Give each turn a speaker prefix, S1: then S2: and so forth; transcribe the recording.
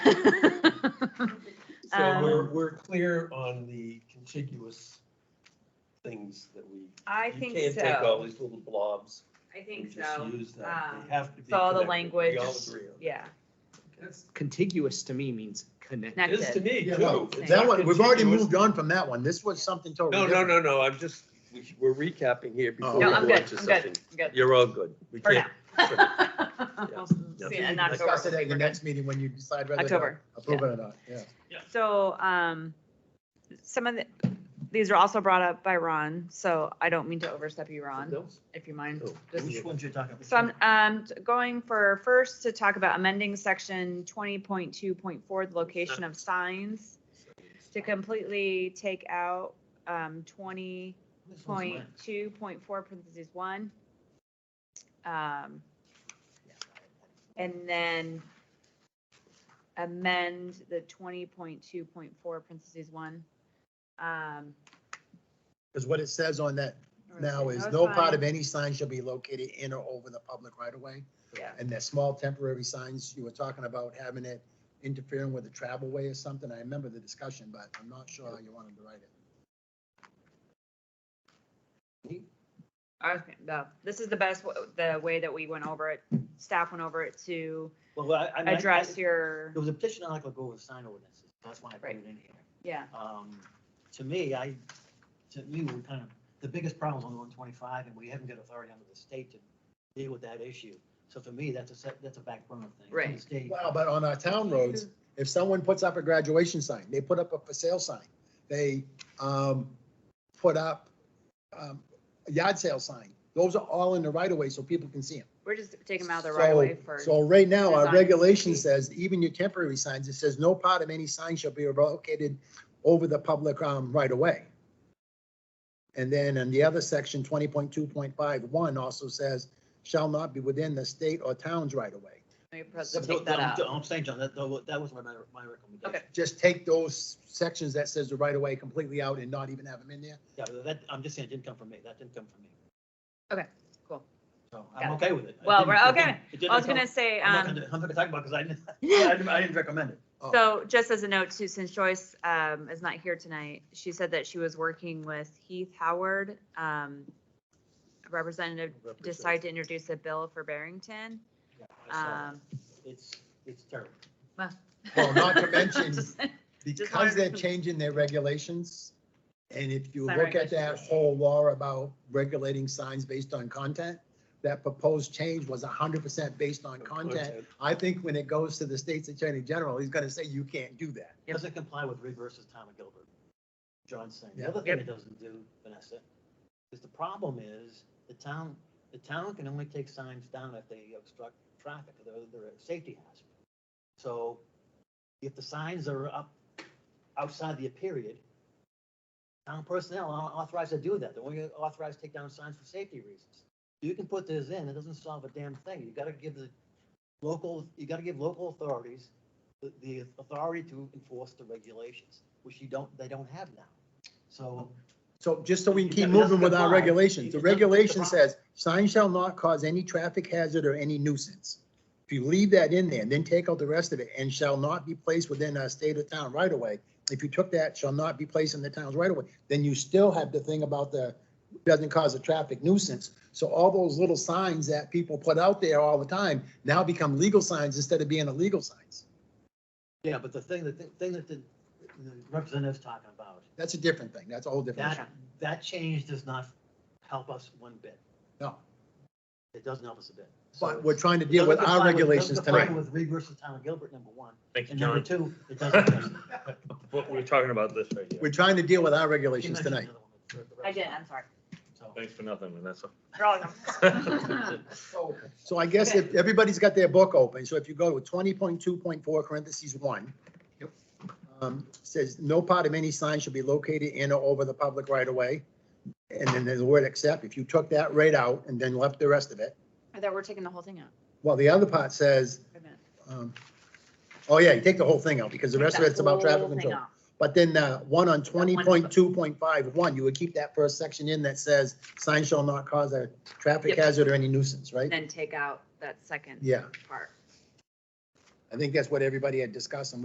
S1: Um,
S2: we're clear on the contiguous things that we.
S1: I
S2: You
S1: think
S2: can't take all
S1: so.
S2: these little blobs
S1: I
S2: and
S1: think
S2: just
S1: so.
S2: use that.
S1: um,
S2: They have to be.
S1: So all the
S2: connected.
S1: language,
S2: We all agree on
S1: yeah,
S3: Contiguous to me means connected.
S2: that. It is to
S1: connected.
S2: me
S4: Yeah,
S2: too.
S4: no,
S2: It's
S4: That
S2: not
S4: one, we've already
S2: contiguous.
S4: moved on from that one. This was something totally
S2: No, no,
S4: different.
S2: no, no, I'm just, we- we're recapping here before
S4: Oh,
S2: we
S1: No,
S4: okay.
S1: I'm
S2: go on
S1: good,
S2: to
S1: I'm good,
S2: something.
S1: I'm good,
S2: You're all good. We
S1: for
S2: can't.
S1: now. We'll see it
S2: yeah.
S1: and not go
S4: Discuss it
S1: over
S4: at
S1: it.
S4: your
S1: We're good.
S4: next meeting when you decide whether to
S1: October,
S4: approve it or not, yeah.
S1: So, um, some of the, these are also brought up by Ron, so I don't mean to overstep you, Ron, if you mind.
S2: Oh,
S1: just-
S2: which one?
S4: ones you're talking about?
S1: So I'm, um, going for first to talk about amending section twenty point two point four, the location of signs, to completely take out, um, twenty point two point four parentheses one. Um, and then amend the twenty point two point four parentheses one. Um,
S4: Because what it says on that now is no part of any sign shall be located in or over the public right of way.
S1: Yeah.
S4: And that small temporary signs, you were talking about having it interfering with the travel way or something. I remember the discussion, but I'm not sure how you wanted to write it.
S1: I was gonna- no, this is the best, wa- the way that we went over it, staff went over it to
S5: Well, I, I mean, I-
S1: address
S5: I-
S1: your,
S5: There was a petition article go with sign ordinances, that's why I put
S1: Right.
S5: it in here.
S1: yeah,
S5: Um, to me, I, to me, we're kind of, the biggest problem on one twenty-five, and we haven't got authority under the state to deal with that issue. So for me, that's a, set- that's a back burner thing. The
S1: Right.
S5: state-
S4: Well, but on our town roads, if someone puts up a graduation sign, they put up a for sale sign, they, um, put up, um, a yard sale sign. Those are all in the right of way so people can see them.
S1: we're just taking them out of the right of way for,
S4: So right now, our
S1: design.
S4: regulation says even your temporary signs, it says no part of any sign shall be located over the public, um, right of way. And then in the other section, twenty point two point five one also says shall not be within the state or town's right of way.
S1: maybe
S5: So
S1: let's
S5: th-
S1: take that
S5: I'm-
S1: out.
S5: I'm saying, John, that, that was my, my recommendation.
S4: just take those sections that says the right of way completely out and not even have them in there.
S5: Yeah, but that, I'm just saying, it didn't come from me, that didn't come from me,
S1: Cool.
S5: so
S1: Got
S5: I'm okay with it. It
S1: Well,
S5: didn't-
S1: we're
S5: it
S1: okay.
S5: didn't- it didn't
S1: I was
S5: come-
S1: gonna say,
S5: I'm not
S1: um,
S5: gonna, I'm not gonna talk about, it because I didn't, I didn't, I didn't recommend it.
S4: Oh,
S1: So just as a note too, since Joyce um, is not here tonight, she said that she was working with Heath Howard. um, Representative decided to introduce a bill for Barrington.
S5: Yeah, I saw that.
S1: um,
S5: It's, it's terrible.
S4: Well, not to mention-
S1: Just-
S4: Because they're changing their regulations, and if you
S1: Sign
S4: look at that
S1: regulations.
S4: whole law about regulating signs based on content, that proposed change was hundred percent based on content. I think when it goes to the state's attorney general, he's gonna say you can't do that.
S1: Yep.
S5: Doesn't comply with Reed versus Tom and Gilbert. John's saying. The
S4: Yeah.
S5: other thing it doesn't do, Vanessa, is the problem is the town, the town can only take signs down if they obstruct traffic, they're, they're a safety hazard. So if the signs are up outside the period, town personnel aren't authorized to do that. They're only authorized to take down signs for safety reasons. You can put this in, it doesn't solve a damn thing. You gotta give the local, you gotta give local authorities the, the authority to enforce the regulations, which you don't, they don't have now. So
S4: So just so we can
S5: Yeah,
S4: keep
S5: but it
S4: moving
S5: doesn't
S4: with our
S5: comply.
S4: regulations, the
S5: It doesn't-
S4: regulation
S5: it's a
S4: says, sign shall not cause any traffic hazard or any nuisance. If you leave that in there, and then take out the rest of it, and shall not be placed within a state or town right away. If you took that, shall not be placed in the town's right away, then you still have the thing about the, doesn't cause a traffic nuisance. So all those little signs that people put out there all the time now become legal signs instead of being illegal signs.
S5: Yeah, but the thing, the thing that the the representative's talking about,
S4: That's a different thing. That's a whole different. issue.
S5: that, that change does not help us one bit.
S4: No.
S5: It doesn't help us a bit. So
S4: But
S5: it's-
S4: we're trying to
S5: it
S4: deal with
S5: doesn't
S4: our
S5: comply it doesn't
S4: regulations
S5: comply
S4: tonight.
S5: With Reed versus Town of Gilbert, number one,
S6: Thank you,
S5: and number
S6: John.
S5: two, it doesn't.
S6: What we're talking about this right
S4: We're
S6: here.
S4: trying to deal with our
S5: She
S4: regulations
S5: mentioned
S4: tonight.
S5: another one, the- the
S1: I did,
S5: rest
S1: I'm sorry.
S5: of them,
S6: Thanks for nothing, Vanessa.
S1: They're all gone.
S4: So I guess if everybody's got their book open, so if you go to twenty point two point four parentheses one. Um, says no part of any sign should be located in or over the public right of way. And then there's the word except, if you took that right out and then left the rest of it,
S1: I thought we're taking the whole thing out.
S4: well, the other part says,
S1: Wait a minute.
S4: um, oh yeah, you take the whole thing out because the rest of
S1: Take
S4: it's
S1: that
S4: about traffic
S1: whole thing
S4: control.
S1: off.
S4: But then uh, one on twenty point two point five one, you would keep that first section in that says sign shall not cause a traffic
S1: Yep.
S4: hazard or any nuisance, right?
S1: Then take out that second
S4: Yeah,
S1: part.
S4: I think that's what everybody had discussed and